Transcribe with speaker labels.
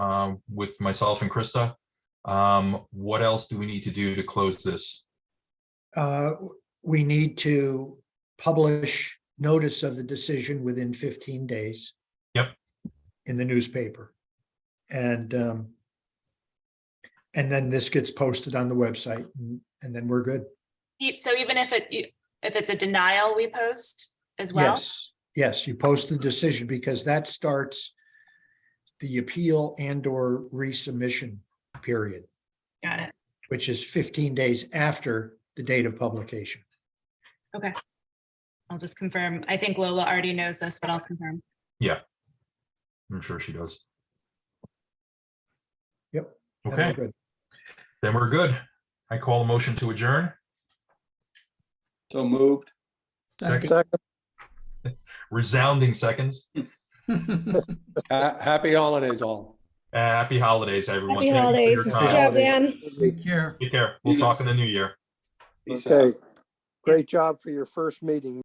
Speaker 1: um, with myself and Krista. Um, What else do we need to do to close this?
Speaker 2: Uh, we need to publish notice of the decision within fifteen days.
Speaker 1: Yep.
Speaker 2: In the newspaper. And, um, and then this gets posted on the website and- and then we're good.
Speaker 3: E- So even if it, if it's a denial, we post as well?
Speaker 2: Yes, yes, you post the decision because that starts the appeal and or resubmission period,
Speaker 3: Got it.
Speaker 2: which is fifteen days after the date of publication.
Speaker 3: I'll just confirm. I think Lola already knows this, but I'll confirm.
Speaker 1: I'm sure she does.
Speaker 2: Yep. And we're
Speaker 1: Okay,
Speaker 2: good.
Speaker 1: then we're good. I call a motion to adjourn.
Speaker 4: So moved.
Speaker 1: Second,
Speaker 5: Second.
Speaker 1: resounding seconds.
Speaker 4: Ha- Happy holidays all.
Speaker 1: Uh, Happy holidays, everyone.
Speaker 6: Happy
Speaker 1: Thank you for your
Speaker 6: holidays. Good
Speaker 1: time.
Speaker 6: job, Dan.
Speaker 5: Take care.
Speaker 1: Take care. We'll talk in the new year.
Speaker 4: Peace out.
Speaker 5: Okay. Great job for your first meeting.